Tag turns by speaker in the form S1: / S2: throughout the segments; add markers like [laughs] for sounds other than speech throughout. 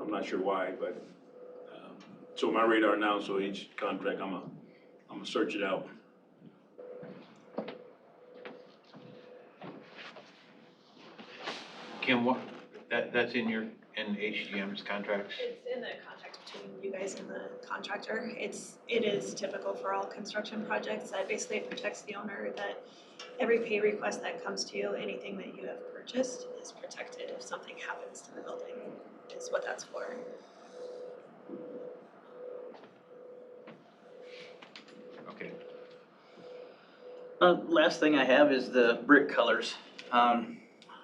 S1: I'm not sure why, but, um, it's on my radar now, so each contract, I'm a, I'm gonna search it out.
S2: Kim, what, that, that's in your, in HGM's contracts?
S3: It's in the contract between you guys and the contractor. It's, it is typical for all construction projects that basically protects the owner that every pay request that comes to you, anything that you have purchased is protected if something happens to the building, is what that's for.
S2: Okay.
S4: Uh, last thing I have is the brick colors. Um,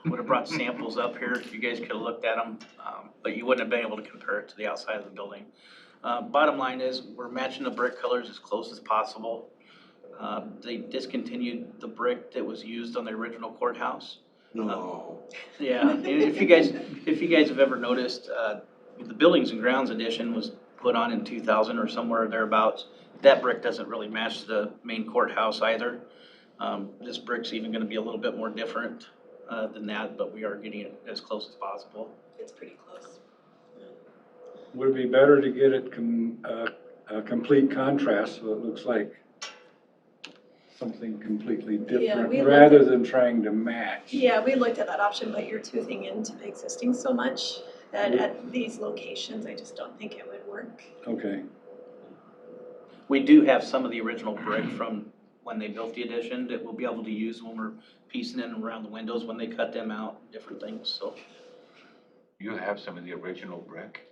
S4: would have brought samples up here if you guys could have looked at them, um, but you wouldn't have been able to compare it to the outside of the building. Uh, bottom line is, we're matching the brick colors as close as possible. Uh, they discontinued the brick that was used on the original courthouse.
S5: No.
S4: Yeah, and if you guys, if you guys have ever noticed, uh, the Buildings and Grounds edition was put on in two thousand or somewhere thereabouts. That brick doesn't really match the main courthouse either. Um, this brick's even gonna be a little bit more different, uh, than that, but we are getting it as close as possible.
S3: It's pretty close.
S6: Would it be better to get it com, uh, a complete contrast, so it looks like something completely different,
S3: we looked
S6: rather
S3: at-
S6: than trying to match?
S3: Yeah, we looked at that option, but you're toothing into the existing so much that at these locations, I just don't think it would work.
S6: Okay,
S4: We do have some of the original brick from when they built the addition that we'll be able to use when we're piecing in around the windows, when they cut them out, different things, so.
S2: You have some of the original brick?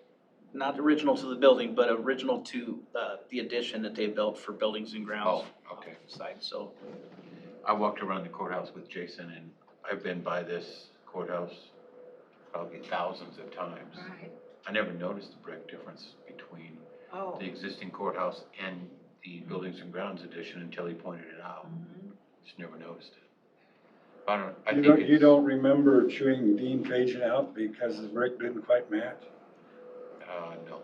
S4: not original to the building, but original to uh, the addition that they built for buildings and grounds.
S2: Oh, okay.
S4: Side, so,
S2: I walked around the courthouse with Jason and I've been by this courthouse probably thousands of times.
S7: Right,
S2: I never noticed the brick difference between
S7: oh.
S2: the existing courthouse and the Buildings and Grounds edition until he pointed it out.
S7: Mhm.
S2: Just never noticed it. I don't, I
S6: you
S2: think
S6: don't,
S2: it's.
S6: you don't remember chewing Dean Pageant out because the brick didn't
S2: [laughs]
S6: quite match?
S2: Uh, no.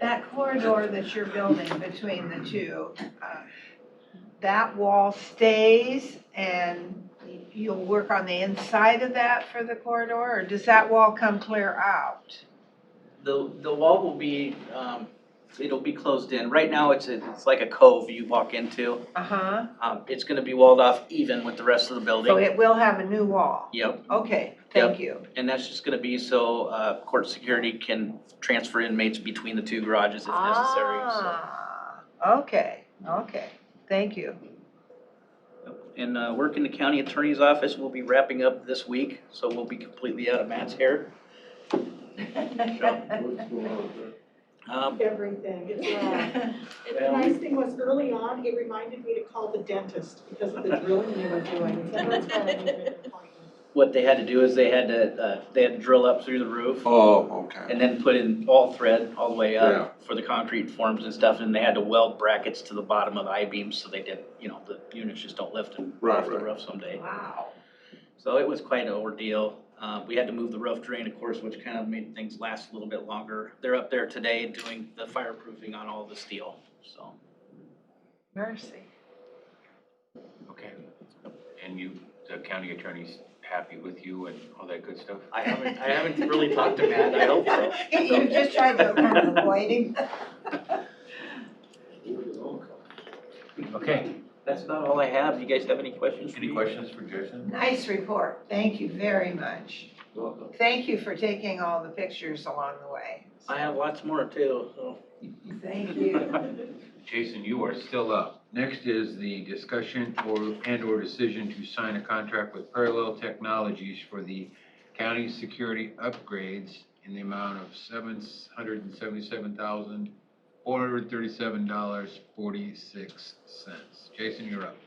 S7: That corridor that you're building between the two, uh, that wall stays and you'll work on the inside of that for the corridor? Or does that wall come clear out?
S4: the, the wall will be, um, it'll be closed in. Right now, it's, a- it's like a cove you walk into.
S7: Uh-huh,
S4: Um, It's gonna be walled off even with the rest of the
S7: so
S4: building.
S7: Oh, it will have a new wall?
S4: Yep,
S7: Okay, thank you.
S4: and that's just gonna be so uh, court security can transfer inmates between the two garages if necessary. so.
S7: Ah, Okay, okay, thank you.
S4: [laughs] And uh, work in the county attorney's office will be wrapping up this week, so we'll be completely out of Matt's hair. Um,
S8: everything. It's, uh, The nice thing was early on, it reminded me to call the dentist because of the drilling they were doing. So that's why I made an appointment.
S4: what they had to do is they had to, uh, they had to drill up through the roof
S5: Oh, okay.
S4: and then put in all thread all the way
S5: Yeah.
S4: up for the concrete forms and stuff, and they had to weld brackets to the bottom of the I-beams so they did, you know, the units just don't lift and
S5: Right,
S4: off the
S5: right.
S4: roof someday.
S7: Wow.
S4: So it was quite an ordeal. Uh, we had to move the roof drain, of course, which kind of made things last a little bit longer. They're up there today doing the fireproofing on all the steel, so.
S7: Mercy.
S2: Okay. And you, the county attorney's happy with you and all that good stuff?
S4: I haven't, I haven't really talked to Matt, I
S7: [laughs]
S4: hope so.
S7: You just tried to kind of avoid him.
S2: Okay.
S4: That's not all I have. You guys have any questions for me?
S2: Any questions for Jason?
S7: Nice report, thank you very much.
S2: Welcome.
S7: Thank you for taking all the pictures along the way.
S4: I have lots more too, so.
S7: Thank you.
S2: Jason, you are still up. Next is the discussion or, and/or decision to sign a contract with Parallel Technologies for the county security upgrades in the amount of seven hundred and seventy-seven thousand, four hundred and thirty-seven dollars, forty-six cents. Jason, you're up.
S4: [laughs]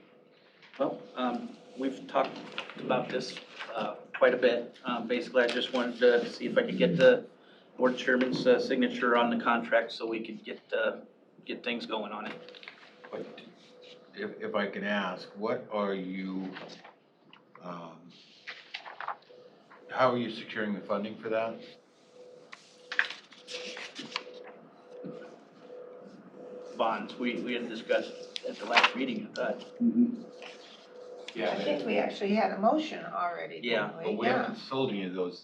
S4: Well, um, we've talked about this, uh, quite a bit. Um, basically, I just wanted to see if I could get the board chairman's, uh, signature on the contract so we could get, uh, get things going on it.
S2: But if, if I can ask, what are you, um, how are you securing the funding for that?
S4: Bonds, we, we had discussed at the last meeting, I thought.
S7: I think we actually had a motion already,
S4: Yeah,
S7: didn't we?
S2: But we haven't sold any of those